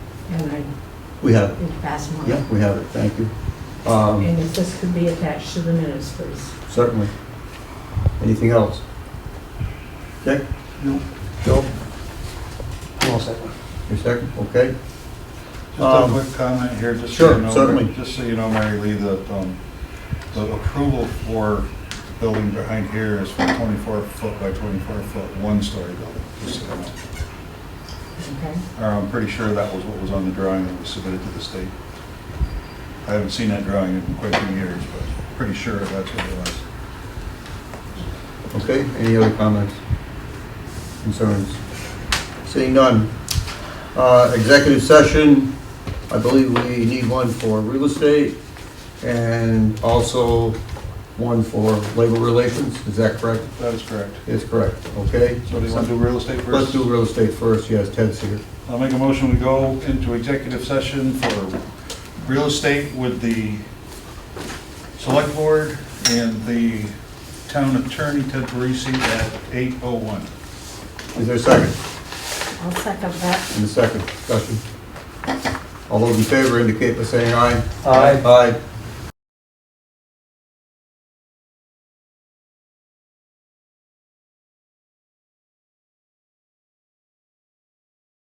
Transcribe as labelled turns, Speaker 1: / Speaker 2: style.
Speaker 1: and
Speaker 2: We have
Speaker 1: I
Speaker 2: it.
Speaker 1: did pass them on.
Speaker 2: Yeah, we have it, thank you. Um,
Speaker 1: And if this could be attached to the minutes, please.
Speaker 2: Certainly. Anything else? Dick?
Speaker 3: No.
Speaker 2: Joe?
Speaker 3: I'll second.
Speaker 2: Your second, okay?
Speaker 4: Just
Speaker 2: Um,
Speaker 4: a quick comment here, just so
Speaker 2: sure,
Speaker 4: you know.
Speaker 2: certainly.
Speaker 4: Just so you know, Mary Lee, that um, the approval for the building behind here is for 24 foot by 24 foot, one-story building. just so you know.
Speaker 1: Okay?
Speaker 4: Uh, I'm pretty sure that was what was on the drawing that was submitted to the state. I haven't seen that drawing in quite a few years, but pretty sure that's what it was.
Speaker 2: Okay, any other comments? Concerns? Seeing none. Uh, Executive session, I believe we need one for real estate and also one for labor relations, is that correct?
Speaker 4: That is correct.
Speaker 2: Is correct, okay?
Speaker 4: So do you want to do real estate 1st
Speaker 2: Let's do real estate first, yes, Ted's here.
Speaker 4: I'll make a motion to go into executive session for real estate with the select board and the town attorney, Ted Parisi, at 8:01.
Speaker 2: Is there a second?
Speaker 1: I'll second that.
Speaker 2: And a second, discussion. All those in favor indicate by saying aye.
Speaker 3: Aye.
Speaker 2: Aye.